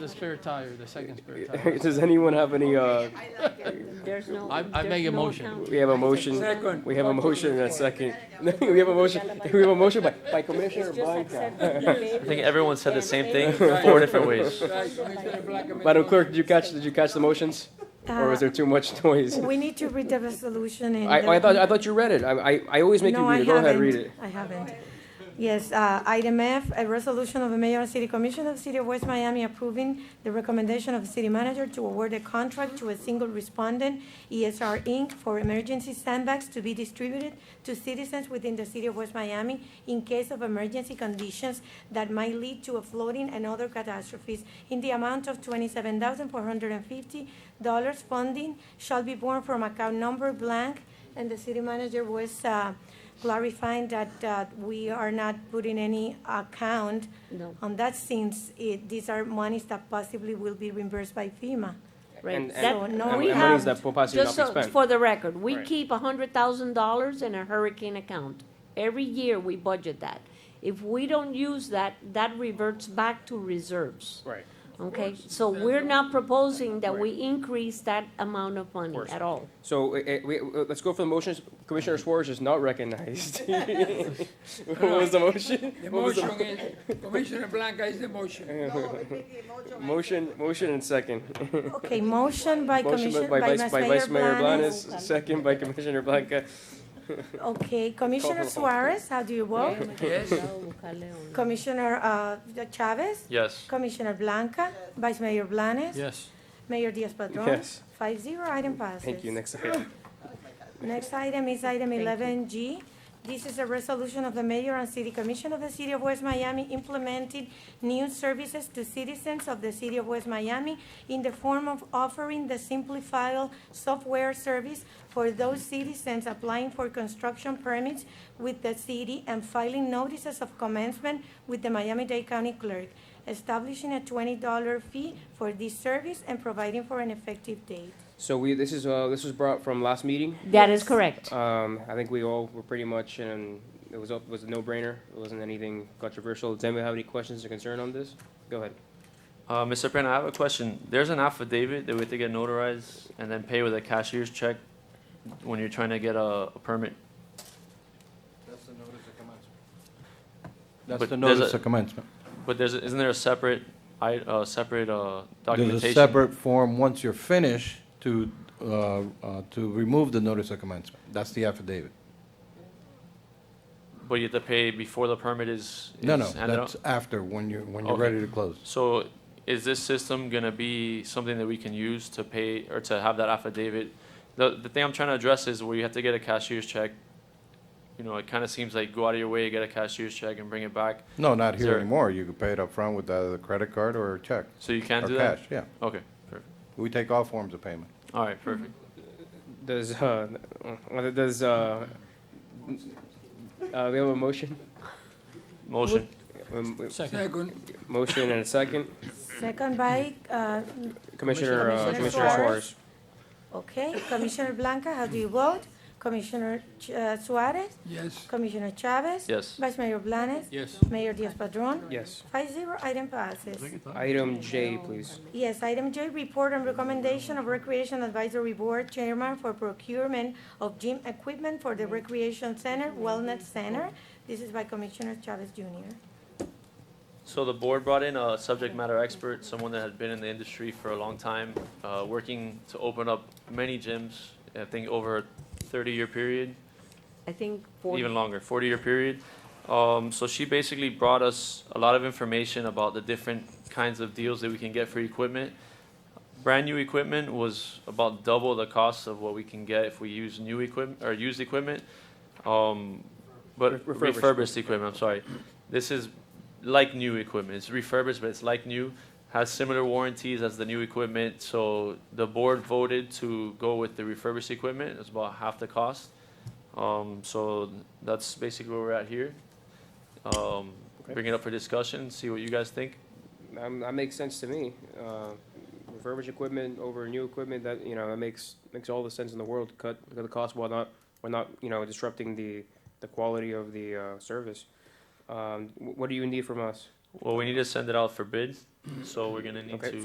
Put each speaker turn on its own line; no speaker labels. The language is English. The spare tire, the second spare tire.
Does anyone have any, uh,
There's no.
I- I
there's
make a
no
motion.
account.
we have a motion?
Second.
We have a motion and a second. We have a motion, we have a motion by, by Commissioner
It's just
Blanca.
accepting
I
maybe
think everyone said the same thing,
Right.
four different ways.
Right, Commissioner Blackman.
Madam Clerk, did you catch, did you catch the motions? Or was there too much noise?
We need to read the resolution and.
I, I thought, I thought you read it. I, I, I always make you
No, I
read it. Go ahead,
haven't.
read it.
I haven't. Yes, uh, item F, a resolution of the mayor and city commission of the city of West Miami approving the recommendation of the city manager to award a contract to a single respondent, ESR Inc., for emergency sandbags to be distributed to citizens within the city of West Miami in case of emergency conditions that might lead to a flooding and other catastrophes in the amount of twenty-seven thousand four hundred and fifty dollars. Funding shall be borne from account number blank, and the city manager was, uh, clarifying that uh, we are not putting any account
No.
on that since it- these are monies that possibly will be reimbursed by FEMA.
Right.
And-
That-
So, no,
And-
we
and
have-
monies that will possibly
Just
not be
so,
spent.
for the record, we
Right.
keep hundred thousand dollars in a hurricane account. Every year, we budget that. If we don't use that, that reverts back to reserves,
Right.
okay? So we're not proposing that we increase that amount of money at all.
So, eh, eh, we, eh, let's go for the motions. Commissioner Suarez is not recognized. What was the motion?
The
What was the-
motion is, Commissioner Blanca is the motion.
Motion, motion and second.
Okay, motion by
Motion
Commissioner,
by Vice, by Vice Mayor
Blanes.
Blanes, second by Commissioner Blanca.
Okay, Commissioner
Call for
Suarez, how do you vote?
Yes.
Commissioner uh, Chavez?
Yes.
Commissioner Blanca? Vice Mayor Blanes?
Yes.
Mayor Diaz-Padrón?
Yes.
Five zero, item passes.
Thank you, next item.
Next item is item eleven G. This is a resolution of the mayor and city commission of the city of West Miami implementing new services to citizens of the city of West Miami in the form of offering the simplified software service for those citizens applying for construction permits with the city and filing notices of commencement with the Miami-Dade County Clerk, establishing a twenty dollar fee for this service and providing for an effective date.
So we, this is, uh, this was brought from last meeting.
That is correct.
Um, I think we all were pretty much, and it was, a- was a no-brainer. It wasn't anything controversial. Does anybody have any questions or concern on this? Go ahead.
Uh, Mr. Penna, I have a question. There's an affidavit that we have to get notarized and then pay with a cashier's check when you're trying to get a, a permit. But
That's the
there's
notice
a-
of commencement.
But there's, isn't there a separate, I, uh, separate, uh,
There's a
documentation?
separate form, once you're finished, to, uh, uh, to remove the notice of commencement. That's the affidavit.
But you have to pay before the permit is,
No, no,
is handed out?
that's after, when you're, when you're
Okay.
ready to close.
So is this system gonna be something that we can use to pay or to have that affidavit? The, the thing I'm trying to address is where you have to get a cashier's check. You know, it kinda seems like go out of your way, get a cashier's check and bring it back.
No, not here
Sir.
anymore. You could pay it up front with either a credit card or a check.
So you can
or
do that?
cash, Yeah,
Okay, perfect.
we take all forms of payment.
All right, perfect.
Does, uh, uh, does, uh, uh, we have a motion?
Motion.
Um, we-
Second.
Second.
Motion and a second.
Second by uh,
Commissioner, uh,
Commissioner
Commissioner Suarez.
Suarez. Okay, Commissioner Blanca, how do you vote? Commissioner Ch- uh, Suarez?
Yes.
Commissioner Chavez?
Yes.
Vice Mayor Blanes?
Yes.
Mayor Diaz-Padrón?
Yes.
Five zero, item passes.
Item J, please.
Yes, item J, report and recommendation of Recreation Advisory Board Chairman for procurement of gym equipment for the Recreation Center, Wellness Center. This is by Commissioner Chavez Jr.
So the board brought in a subject matter expert, someone that had been in the industry for a long time, uh, working to open up many gyms, I think over a thirty-year period.
I think forty
even longer, 40 year period. Um, so she basically brought us a lot of information about the different kinds of deals that we can get for equipment. Brand new equipment was about double the cost of what we can get if we use new equipment or used equipment. Um, but
Re-
refurbished.
refurbished.
equipment, I'm sorry. This is like new equipment. It's refurbished, but it's like new. Has similar warranties as the new equipment. So the board voted to go with the refurbished equipment. It's about half the cost. Um, so that's basically where we're at here. Um,
Okay.
bring it up for discussion, see what you guys think.
Um, that makes sense to me. Uh, refurbished equipment over new equipment, that, you know, that makes, makes all the sense in the world. Cut, cut the cost while not, while not, you know, disrupting the, the quality of the, uh, service. Um, wh- what do you need from us?
Well, we need to send it out for bid, so we're gonna need
Okay.
to